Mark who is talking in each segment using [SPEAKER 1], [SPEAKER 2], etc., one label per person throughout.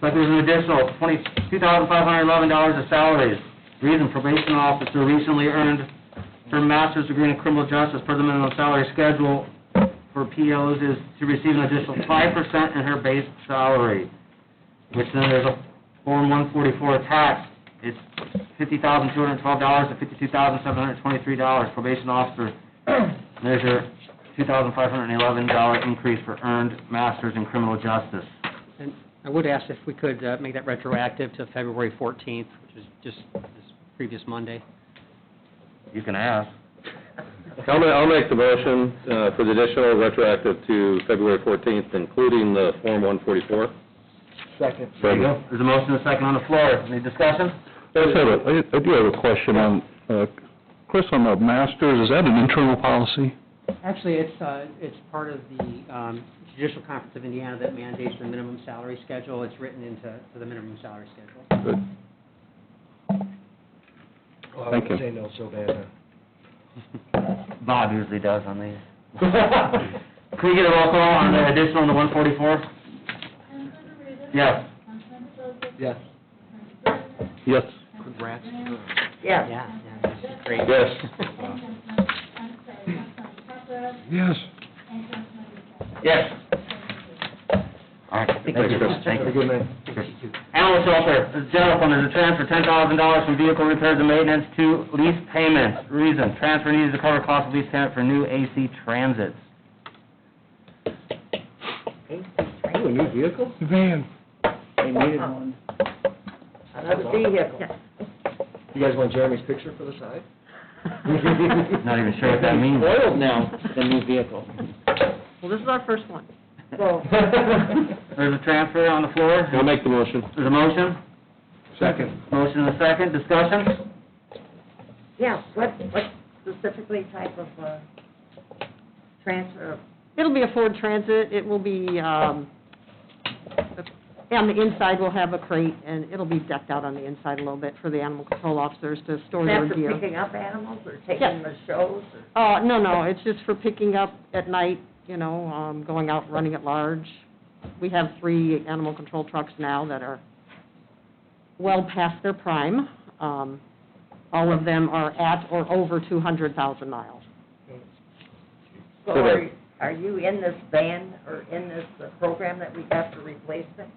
[SPEAKER 1] but there's an additional twenty, two thousand five hundred eleven dollars of salaries. Reason probation officer recently earned her master's degree in criminal justice per the minimum salary schedule for POs is to receive an additional five percent in her base salary, which then there's a Form one forty-four tax. It's fifty thousand two hundred twelve dollars to fifty-two thousand seven hundred twenty-three dollars. Probation officer, there's your two thousand five hundred eleven dollar increase for earned masters in criminal justice.
[SPEAKER 2] And I would ask if we could uh, make that retroactive to February 14th, which is just this previous Monday.
[SPEAKER 1] You can ask.
[SPEAKER 3] I'll ma- I'll make the motion uh, for the additional retroactive to February 14th, including the Form 144.
[SPEAKER 1] Second. There you go. There's a motion and a second on the floor. Any discussion?
[SPEAKER 4] Yes, I have a- I do have a question on, uh, Chris, on the masters, is that an internal policy?
[SPEAKER 2] Actually, it's, uh, it's part of the um, Judicial Conference of Indiana that mandates the minimum salary schedule. It's written into to the minimum salary schedule.
[SPEAKER 4] Good.
[SPEAKER 5] Well, I
[SPEAKER 4] Thank
[SPEAKER 5] would
[SPEAKER 4] you.
[SPEAKER 5] say no, Sylvana.
[SPEAKER 1] Bob usually does on these. Can we get a roll call on the additional on the one forty-four?
[SPEAKER 6] Councilmember Reavis?
[SPEAKER 1] Yes.
[SPEAKER 6] Councilmember Joseph?
[SPEAKER 5] Yes.
[SPEAKER 4] Yes.
[SPEAKER 2] Congrats. Yeah,
[SPEAKER 7] Yes.
[SPEAKER 2] yeah, this is great.
[SPEAKER 3] Yes.
[SPEAKER 6] And Councilmember, I'm sorry, Councilmember Papera
[SPEAKER 4] Yes.
[SPEAKER 6] and Councilmember Sexton.
[SPEAKER 1] Yes. All right. Thank you, Chris. Thank
[SPEAKER 5] Have a
[SPEAKER 1] you.
[SPEAKER 5] good night.
[SPEAKER 1] Animal shelter, the general fund is a transfer, ten thousand dollars from vehicle repairs and maintenance to lease payments. Reason, transfer needed to cover cost of lease payment for new AC transits.
[SPEAKER 5] Ooh, a new vehicle?
[SPEAKER 7] They needed one. Another vehicle.
[SPEAKER 5] You guys want Jeremy's picture for the side?
[SPEAKER 1] Not even sure what that means.
[SPEAKER 5] Oiled now, the new vehicle.
[SPEAKER 7] Well, this is our first one.
[SPEAKER 1] There's a transfer on the floor.
[SPEAKER 3] I'll make the motion.
[SPEAKER 1] There's a motion,
[SPEAKER 5] Second.
[SPEAKER 1] motion and a second, discussion?
[SPEAKER 7] Yeah, what, what specifically type of, uh, transfer? It'll be a Ford Transit, it will be, um, on the inside we'll have a crate, and it'll be decked out on the inside a little bit for the animal control officers to store their gear.
[SPEAKER 8] picking up animals or taking
[SPEAKER 7] Yes.
[SPEAKER 8] them to shows? or-
[SPEAKER 7] Uh, no, no, it's just for picking up at night, you know, um, going out, running at large. We have three animal control trucks now that are well past their prime. Um, all of them are at or over two hundred thousand miles.
[SPEAKER 8] So are, are you in this van or in this uh, program that we got for replacement?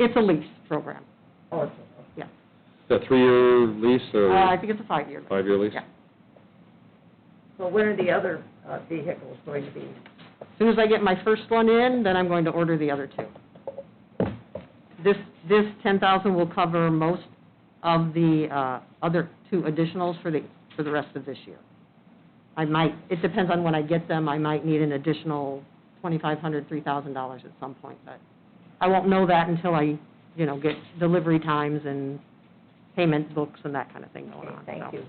[SPEAKER 7] It's a lease program.
[SPEAKER 8] Oh, it's-
[SPEAKER 3] Is that three-year lease
[SPEAKER 7] Uh, I
[SPEAKER 3] or
[SPEAKER 7] think it's a five-year. lease.
[SPEAKER 3] five-year lease?
[SPEAKER 7] Yeah.
[SPEAKER 8] so when are the other uh, vehicles going to be?
[SPEAKER 7] As Soon as I get my first one in, then I'm going to order the other two. This, this ten thousand will cover most of the, uh, other two additionals for the, for the rest of this year. I might, it depends on when I get them, I might need an additional twenty-five hundred, three thousand dollars at some point, but I won't know that until I, you know, get delivery times and payment books and that kind of thing
[SPEAKER 8] Okay,
[SPEAKER 7] going on, so.
[SPEAKER 8] Thank you.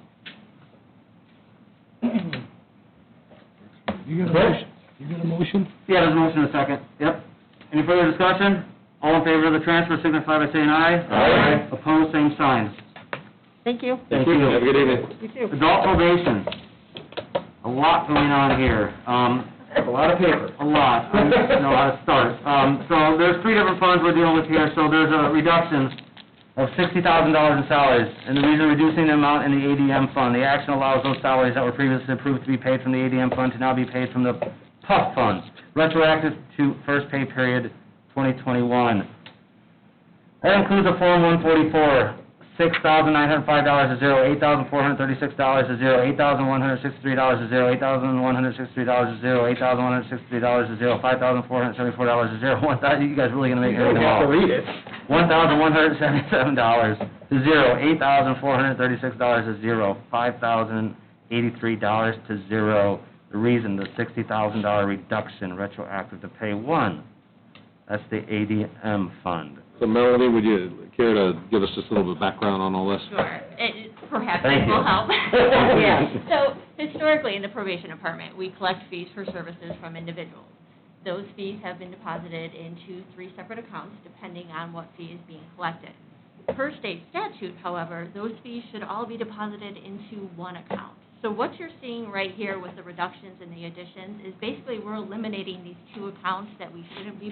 [SPEAKER 4] You
[SPEAKER 1] a
[SPEAKER 4] got
[SPEAKER 1] motion-
[SPEAKER 4] you got a motion?
[SPEAKER 1] Yeah, there's a motion and a second, yep. Any further discussion? All in favor of the transfer signify by saying aye.
[SPEAKER 3] Aye.
[SPEAKER 1] Opposed, same sign.
[SPEAKER 7] Thank you.
[SPEAKER 1] Thank you.
[SPEAKER 3] Have a good evening.
[SPEAKER 7] You too.
[SPEAKER 1] Adult probation, a lot going on here, um,
[SPEAKER 5] A lot of paper.
[SPEAKER 1] a lot, I don't know how to start. Um, so there's three different funds we're dealing with here, so there's a reduction of sixty thousand dollars in salaries, and the reason reducing the amount in the ADM fund, the action allows those salaries that were previously approved to be paid from the ADM fund to now be paid from the PUF funds, retroactive to first pay period twenty twenty-one. That includes a Form 144, $6,905 is zero, $8,436 is zero, $8,163 is zero, $8,163 is zero, $8,163 is zero, $5,474 is zero, One thousand. you guys really gonna make
[SPEAKER 5] You don't
[SPEAKER 1] everything
[SPEAKER 5] have to
[SPEAKER 1] off?
[SPEAKER 5] read it.
[SPEAKER 1] $1,177 to zero, $8,436 is zero, $5,083 to zero. The reason, the $60,000 reduction retroactive to pay one. That's the ADM fund.
[SPEAKER 3] So Melanie, would you care to give us just a little bit of background on all this?
[SPEAKER 9] Sure, It- perhaps
[SPEAKER 1] Thank
[SPEAKER 9] it will
[SPEAKER 1] you.
[SPEAKER 9] help.
[SPEAKER 8] Yeah.
[SPEAKER 9] So historically, in the probation department, we collect fees for services from individuals. Those fees have been deposited into three separate accounts, depending on what fee is being collected. Per state statute, however, those fees should all be deposited into one account. So what you're seeing right here with the reductions and the additions is basically we're eliminating these two accounts that we shouldn't be